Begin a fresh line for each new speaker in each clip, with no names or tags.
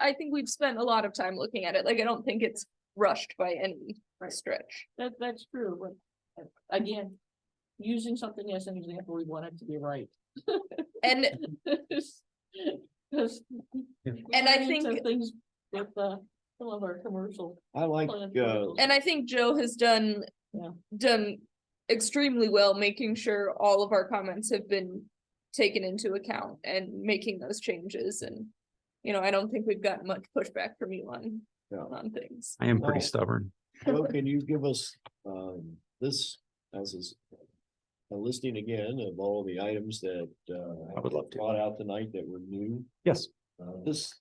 I think we've spent a lot of time looking at it. Like, I don't think it's rushed by any stretch.
That, that's true, but uh, again, using something as an example, we want it to be right.
And
Because.
And I think-
Things with, uh, some of our commercial.
I like,
plan
uh,
articles.
And I think Joe has done,
Yeah.
done extremely well, making sure all of our comments have been taken into account and making those changes and. You know, I don't think we've gotten much pushback from you on,
No.
on things.
I am
Well-
pretty stubborn.
Joe, can you give us, um, this, as is. A listing again of all the items that, uh.
I would love to.
Brought out tonight that were new,
Yes,
uh, this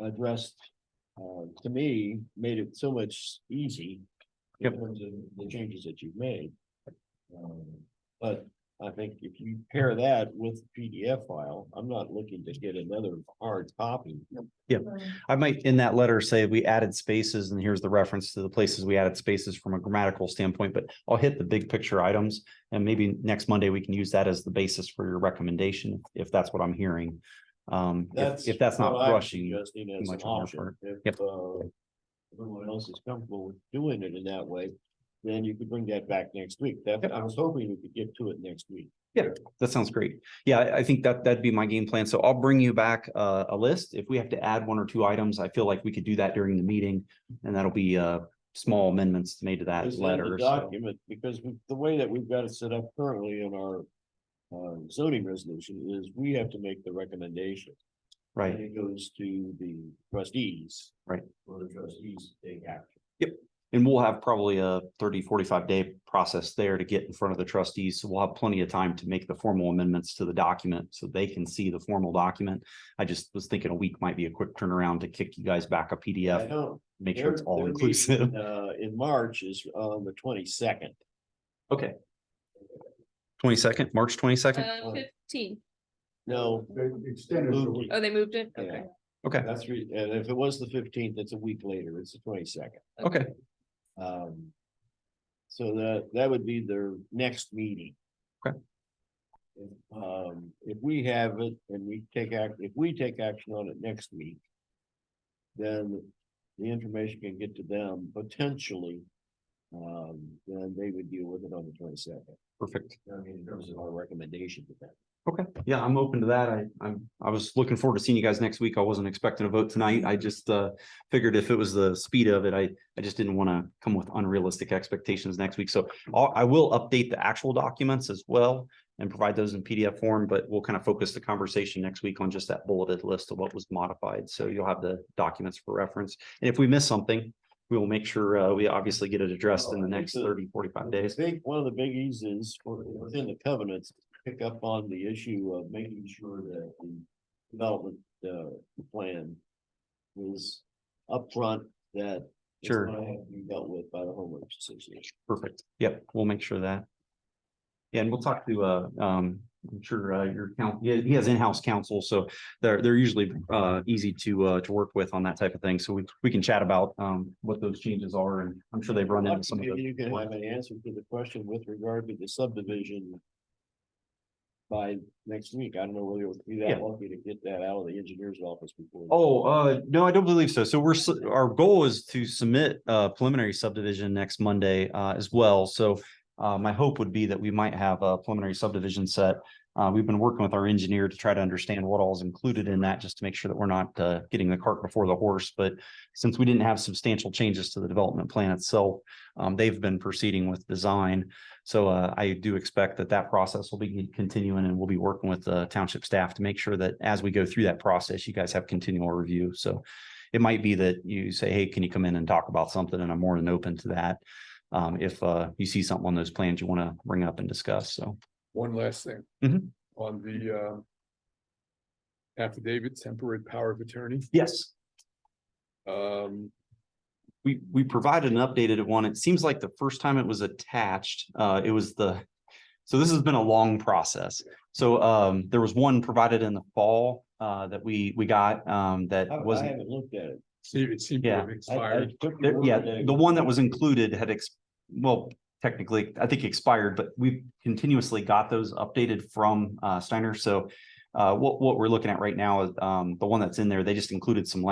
addressed, uh, to me, made it so much easy. in
Yep.
terms of The changes that you've made. Um, But I think if you pair that with PDF file, I'm not looking to get another hard copy.
I might in that letter say we added spaces and here's the reference to the places we added spaces from a grammatical standpoint, but I'll hit the big picture items. And maybe next Monday we can use that as the basis for your recommendation, if that's what I'm hearing. Um, if, if that's not
what I'm
rushing,
suggesting as an
much on our
option.
part.
If
Yep.
uh, everyone else is comfortable with doing it in that way, then you could bring that back next week. That,
Yep.
I was hoping we could get to it next week.
that sounds great. Yeah, I, I think that, that'd be my game plan. So I'll bring you back uh, a, a list. If we have to add one or two items, I feel like we could do that during the meeting. And that'll be, uh, small amendments made to that
It's in the
letter. so-
Document, because we- the way that we've got it set up currently in our uh, zoning resolution is we have to make the recommendation.
Right.
And it goes to the trustees.
Right.
For the trustees to take action.
And we'll have probably a 30, 45 day process there to get in front of the trustees. So we'll have plenty of time to make the formal amendments to the document so they can see the formal document. I just was thinking a week might be a quick turnaround to kick you guys back a
I
PDF,
know.
make sure it's
their-
all
their meeting,
inclusive.
Uh, in March is on the twenty-second.
Okay. Twenty second, March twenty second.
Uh, fifteen.
No,
Extended.
Moved.
Oh, they moved it? Okay.
Yeah.
Okay,
That's re, and if it was the fifteenth, it's a week later, it's the twenty-second,
okay,
um. So that, that would be their next meeting.
Okay.
Um, if we have it and we take act, if we take action on it next week. Then the information can get to them potentially. Um, then they would deal with it on the twenty-second,
perfect.
I mean, in terms of our recommendation to them.
Okay, yeah, I'm open to that. I, I'm, I was looking forward to seeing you guys next week. I wasn't expecting a vote tonight. I just, uh, figured if it was the speed of it, I, I just didn't want to come with unrealistic expectations next week. So I'll, I will update the actual documents as well and provide those in PDF form, but we'll kind of focus the conversation next week on just that bulleted list of what was modified. So you'll have the documents for reference. And if we miss something, we will make sure, uh, we obviously get it addressed in the next 30, 45 days.
I think one of the biggies is for- within the covenants, pick up on the issue of making sure that the development uh plan is upfront that it's
Sure.
gonna have to be dealt with by the homeowners association.
Perfect. Yep, we'll make sure of that. Yeah, And we'll talk to, uh, um, I'm sure, uh, your count, yeah, he has in-house counsel, so they're, they're usually, uh, easy to, uh, to work with on that type of thing. So we, we can chat about, um, what those changes are and I'm sure they've run into some of
Maybe You can have
those.
an answer to the question with regard to the subdivision by next week. I don't know whether you'll be that
Yeah.
lucky to get that out of the engineer's office before.
Oh, uh, no, I don't believe so. So we're, s- our goal is to submit, uh, preliminary subdivision next Monday, uh, as well. So, uh, my hope would be that we might have a preliminary subdivision set Uh, we've been working with our engineer to try to understand what all is included in that, just to make sure that we're not, uh, getting the cart before the horse. But since we didn't have substantial changes to the development plan itself, um, they've been proceeding with design. So, uh, I do expect that that process will be continuing and we'll be working with the township staff to make sure that as we go through that process, you guys have continual review. So it might be that you say, hey, can you come in and talk about something? And I'm more than open to that. Um, if, uh, you see something on those plans you want to bring up and discuss. So,
One last thing.
Mhm.
On the um. Affidavit temporary power of attorney,
yes.
um,
we, we provided an updated one. It seems like the first time it was attached, uh, it was the, so this has been a long process. So, um, there was one provided in the fall, uh, that we, we got, um, that
I I
wasn't.
haven't looked at it.
see, it seemed to have
I- I
expired.
took your
there- Yeah,
word that it
the one that was included had ex, well, technically, I think expired, but we continuously got those updated from, uh, Steiner. So, uh, what, what we're looking at right now is, um, the one that's in there, they just included some